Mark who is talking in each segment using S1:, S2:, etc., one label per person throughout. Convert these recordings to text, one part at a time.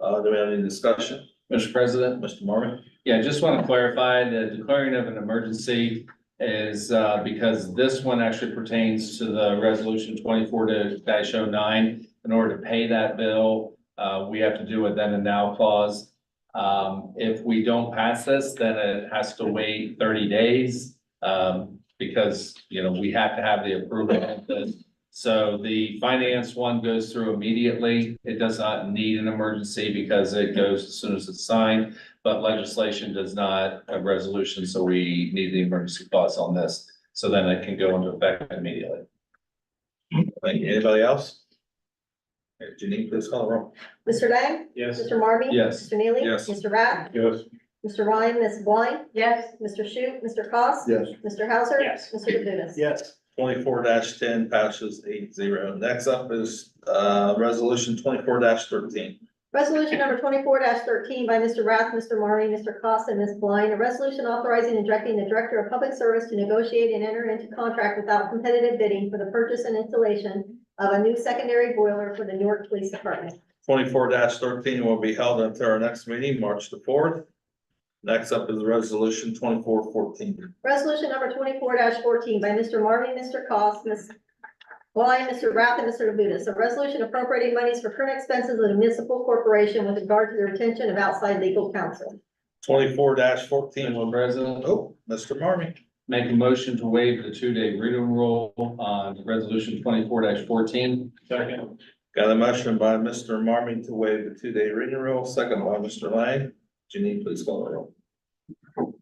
S1: Uh, do we have any discussion?
S2: Mr. President,
S1: Mr. Mormon?
S2: yeah, just want to clarify the declaring of an emergency is uh because this one actually pertains to the resolution twenty-four to dash oh nine. In order to pay that bill, uh, we have to do a then and now clause. Um, if we don't pass this, then it has to wait thirty days. Um, because, you know, we have to have the approval of this. So the finance one goes through immediately. It does not need an emergency because it goes as soon as it's signed. But legislation does not have resolution, so we need the emergency clause on this, so then it can go into effect immediately.
S1: Thank you. Anybody else? Uh, Janine, please call the roll.
S3: Mr. Lang?
S4: Yes.
S3: Mr. Marmy?
S2: Yes.
S3: Mr. Neely?
S1: Yes.
S3: Mr. Rath?
S4: Yes.
S3: Mr. Ryan, Ms. Blind?
S5: yes,
S3: Mr. Shu, Mr. Cost?
S4: Yes.
S3: Mr. Hauser?
S4: Yes.
S3: Mr. Labuda?
S4: Yes.
S1: Twenty-four ten passes eight zero. Next up is, uh, resolution twenty-four thirteen.
S3: Resolution number twenty-four thirteen by Mr. Rath, Mr. Marmy, Mr. Cost, and Ms. Blind. A resolution authorizing and directing the Director of Public Service to negotiate and enter into contract without competitive bidding for the purchase and installation of a new secondary boiler for the Newark Police Department.
S1: Twenty-four thirteen will be held until our next meeting, March the fourth. Next up is resolution twenty-four fourteen.
S3: Resolution number twenty-four fourteen by Mr. Marmy, Mr. Cost, Ms. Blind, Mr. Rath, and Mr. Labuda. A resolution appropriating monies for current expenses of the municipal corporation with regard to the retention of outside legal counsel.
S1: Twenty-four fourteen will,
S2: Mr. President,
S1: oh, Mr. Marmy.
S2: make a motion to waive the two-day reading rule on resolution twenty-four fourteen.
S4: Second.
S1: Got a motion by Mr. Marmy to waive the two-day reading rule, second by Mr. Lang. Janine, please call the roll.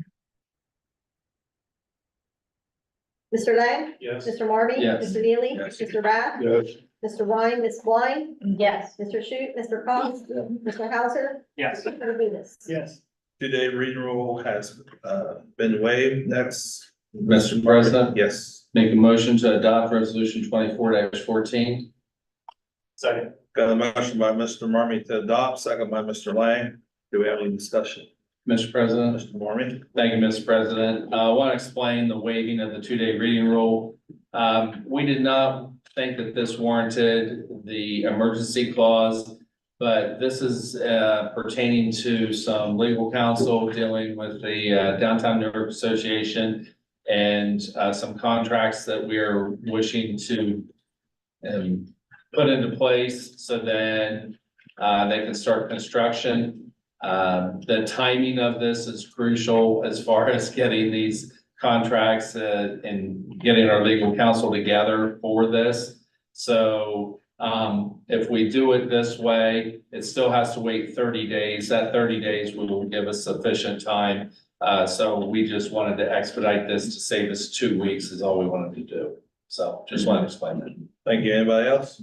S3: Mr. Lang?
S4: Yes.
S3: Mr. Marmy?
S2: Yes.
S3: Mr. Neely?
S1: Yes.
S3: Mr. Rath?
S4: Yes.
S3: Mr. Ryan, Ms. Blind,
S5: yes,
S3: Mr. Shute, Mr. Cost, Mr. Hauser,
S4: Yes.
S3: Mr. Labuda.
S4: Yes.
S1: Two-day reading rule has, uh, been waived. Next.
S2: Mr. President?
S1: Yes.
S2: Make a motion to adopt resolution twenty-four fourteen.
S4: Second.
S1: Got a motion by Mr. Marmy to adopt, second by Mr. Lang. Do we have any discussion?
S2: Mr. President?
S1: Mr. Marmy?
S2: Thank you, Mr. President. Uh, I want to explain the waiving of the two-day reading rule. Um, we did not think that this warranted the emergency clause, but this is, uh, pertaining to some legal counsel dealing with the uh, Downtown Newark Association and, uh, some contracts that we are wishing to um, put into place so then, uh, they can start construction. Um, the timing of this is crucial as far as getting these contracts uh, and getting our legal counsel together for this. So, um, if we do it this way, it still has to wait thirty days. That thirty days will give us sufficient time. Uh, so we just wanted to expedite this to save us two weeks is all we wanted to do. So just wanted to explain that.
S1: Thank you. Anybody else?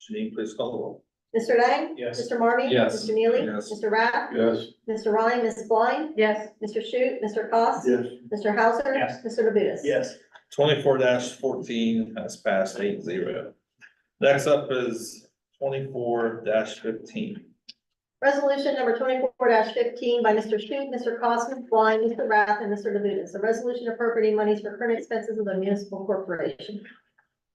S1: Janine, please call the roll.
S3: Mr. Lang?
S4: Yes.
S3: Mr. Marmy?
S2: Yes.
S3: Mr. Neely?
S1: Yes.
S3: Mr. Rath?
S4: Yes.
S3: Mr. Ryan, Ms. Blind,
S5: yes,
S3: Mr. Shute, Mr. Cost?
S4: Yes.
S3: Mr. Hauser?
S4: Yes.
S3: Mr. Labuda?
S4: Yes.
S1: Twenty-four fourteen has passed eight zero. Next up is twenty-four fifteen.
S3: Resolution number twenty-four fifteen by Mr. Shute, Mr. Cost, Ms. Blind, Mr. Rath, and Mr. Labuda. A resolution appropriating monies for current expenses of the municipal corporation.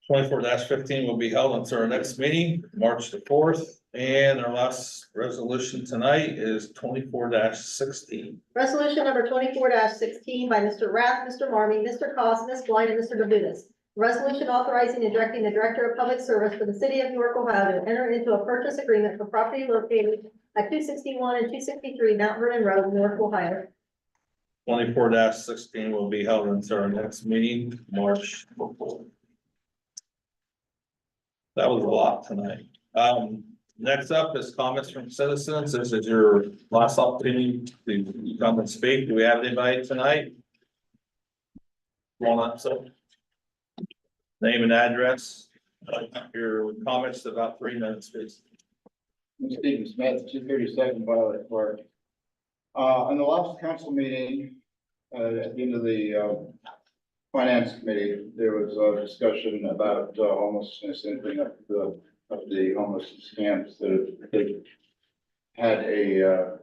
S1: Twenty-four fifteen will be held until our next meeting, March the fourth, and our last resolution tonight is twenty-four sixteen.
S3: Resolution number twenty-four sixteen by Mr. Rath, Mr. Marmy, Mr. Cost, Ms. Blind, and Mr. Labutus. Resolution authorizing and directing the Director of Public Service for the City of Newark, Ohio to enter into a purchase agreement for property located at two sixty-one and two sixty-three Mount Vernon Road, Newark, Ohio.
S1: Twenty-four sixteen will be held until our next meeting, March the fourth. That was a lot tonight. Um, next up is comments from citizens. This is your last opportunity to come and speak. Do we have anybody tonight? Come on up, sir. Name and address, your comments about three minutes, please.
S6: Stephen Smith, two thirty-seven Violet Park. Uh, in the last council meeting, uh, at the end of the, uh, finance committee, there was a discussion about uh, homelessness and bring up the, of the homeless camps that that had a, uh,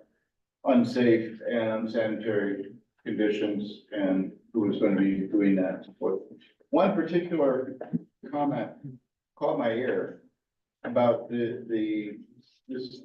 S6: unsafe and unsanitary conditions and who was going to be doing that. But One particular comment caught my ear about the, the, this